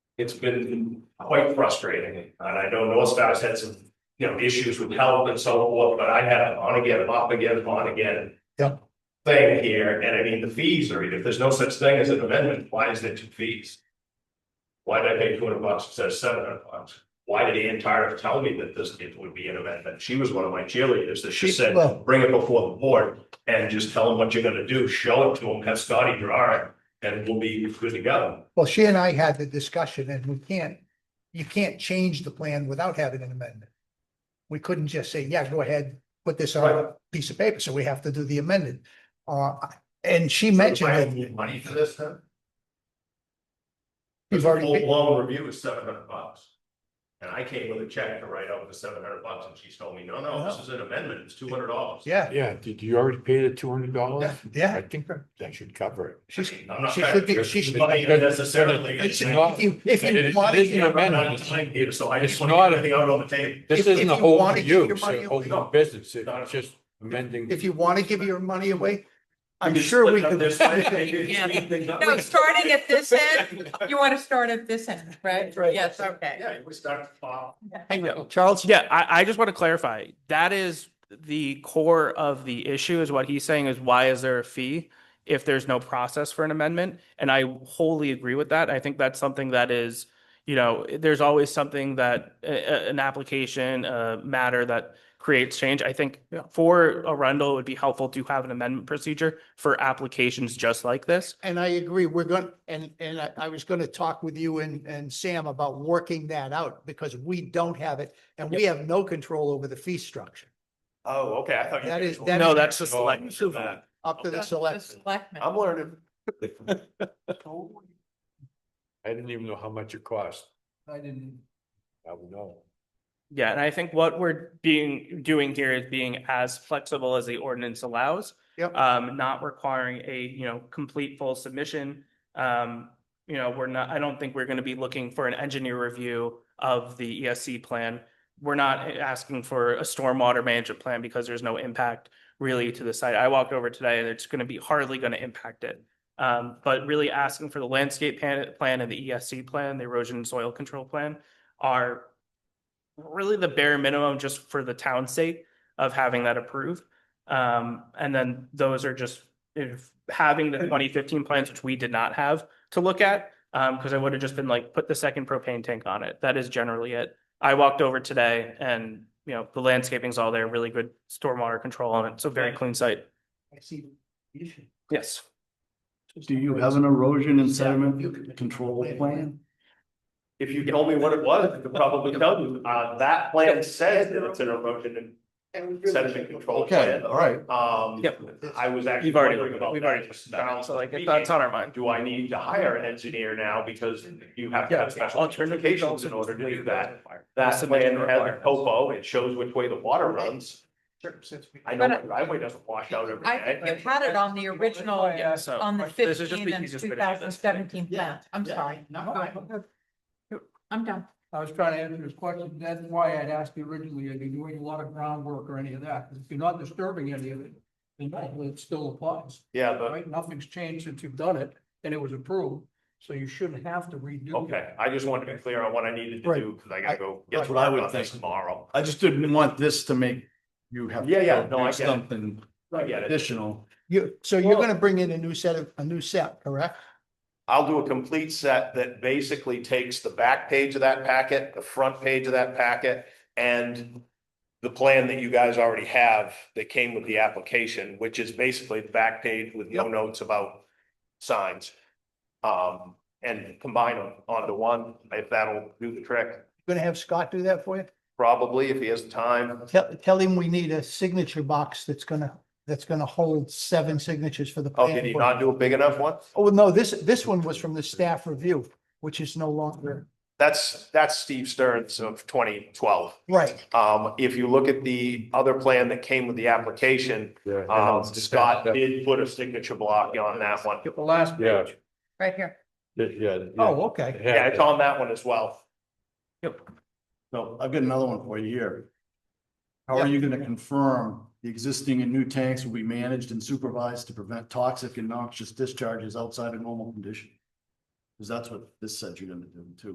it's been quite frustrating, and I know North Star's had some, you know, issues with help and so forth, but I had an on again, off again, on again. Yep. Thing here, and I mean, the fees are, if there's no such thing as an amendment, why is there two fees? Why did I pay two hundred bucks instead of seven hundred bucks? Why did Ann Tariff tell me that this it would be an amendment? She was one of my cheerleaders that she She- said, well- bring it before the board and just tell them what you're gonna do, show it to them, have Scotty draw it, and we'll be good to go. Well, she and I had the discussion and we can't, you can't change the plan without having an amendment. We couldn't just say, yeah, go ahead, put this on a piece of paper, so we have to do the amended. Uh, and she mentioned Why that don't we get Money for this then? you've The already, Full paid- blown review is seven hundred bucks. And I came with a check to write out the seven hundred bucks and she told me, no, no, this No. is an amendment, it's two hundred dollars. yeah, Yeah, did you already pay the two hundred dollars? I yeah, think that that should cover it. she's, I'm not she trying should to be, she should. money necessarily. If It's you- not not- if you it is- want it is an to- I'm amendment. not time here, so I just It's want to not get a- everything out on the table. If- This if isn't a you whole wanna give review, your it's money a whole away- new business, No. it's just amending. If you want to give your money away, I'm You just sure we split up could. this way, maybe Yeah. speed things up. No, starting at this end, you want to start at this end, right? Right. Yes, okay. Yeah, we start to file. Hang on, Charles? Yeah, I, I just want to clarify. That is the core of the issue is what he's saying is why is there a fee if there's no process for an amendment? And I wholly agree with that. I think that's something that is, you know, there's always something that a- a- an application, a matter that creates change. I think for Arundel, it would be helpful to have an amendment procedure for applications just like this. And I agree, we're going, and, and I, I was going to talk with you and, and Sam about working that out because we don't have it and we have no control over the fee structure Oh, okay, I thought. you That guys is- were- that No, is- that's just Oh, like- so that- up to the Okay. The select. selectmen. I'm learning. I didn't even know how much it cost. I didn't. I would know. Yeah, and I think what we're being, doing here is being as flexible as the ordinance allows. Yep. Um, not requiring a, you know, complete full submission. Um, you know, we're not, I don't think we're gonna be looking for an engineer review of the ESC plan. We're not asking for a stormwater management plan because there's no impact really to the site. I walked over today and it's gonna be hardly gonna impact it. Um, but really asking for the landscape pan- plan and the ESC plan, the erosion and soil control plan are really the bare minimum just for the town's sake of having that approved. Um, and then those are just if having the twenty fifteen plans, which we did not have to look at. Um, because I would have just been like, put the second propane tank on it. That is generally it. I walked over today and, you know, the landscaping's all there, really good stormwater control on it. So very clean site. I see the issue. Yes. Do you have an erosion and sediment control plan? If you told me what it was, I could probably tell you, uh, that plan says that it's an erosion and sediment control Okay, plan. all right. Um, Yep. I was actually You've already, wondering we've about already, that. Sounds so like, like that's me. on our mind. Do I need to hire an engineer now because you have to Yeah, have special certifications in order to do that? That plan has a topo, it shows which way the water runs. I know my driveway doesn't wash out every I think day. you had it on the original, Yeah, so. on the this is just fifteen and because it's two been added, thousand that's seventeen Yeah, plan. I'm yeah. sorry. No, Go ahead. I I'm done. I was trying to answer his question. That's why I'd asked you originally, are you doing a lot of groundwork or any of that? If you're not disturbing any of it, then no, it still applies, Yeah, but, right? Nothing's changed since you've done it and it was approved, so you shouldn't have to redo. it. okay, I just wanted to be clear on what I needed to Right. do, because I gotta go. That's what I would about this think. Tomorrow. I just didn't want this to make you have. Yeah, yeah, no, I get it. Something I get it. additional. You, so you're going to bring in a new set of, a new set, correct? I'll do a complete set that basically takes the back page of that packet, the front page of that packet, and the plan that you guys already have that came with the application, which is basically the back page with no notes about signs. Um, and combine them onto one, if that'll do the trick, Going to have Scott do that for you? probably if he has the time. Tell, tell him we need a signature box that's going to, that's going to hold seven signatures for the. Oh, plan did he board. not do a big enough one? Oh, no, this, this one was from the staff review, which is no longer, That's, that's Steve Stearns of twenty twelve. right, Um, if you look at the other plan that came with the application, Yeah. Um, Scott did put a signature block on that one. The last Yeah. page. Right here. Yeah, yeah. oh, okay. Yeah, it's on that one as well. So I've got another one for you here. How are you going to confirm the existing and new tanks will be managed and supervised to prevent toxic and noxious discharges outside of normal condition? Because that's what this said you're going to do too.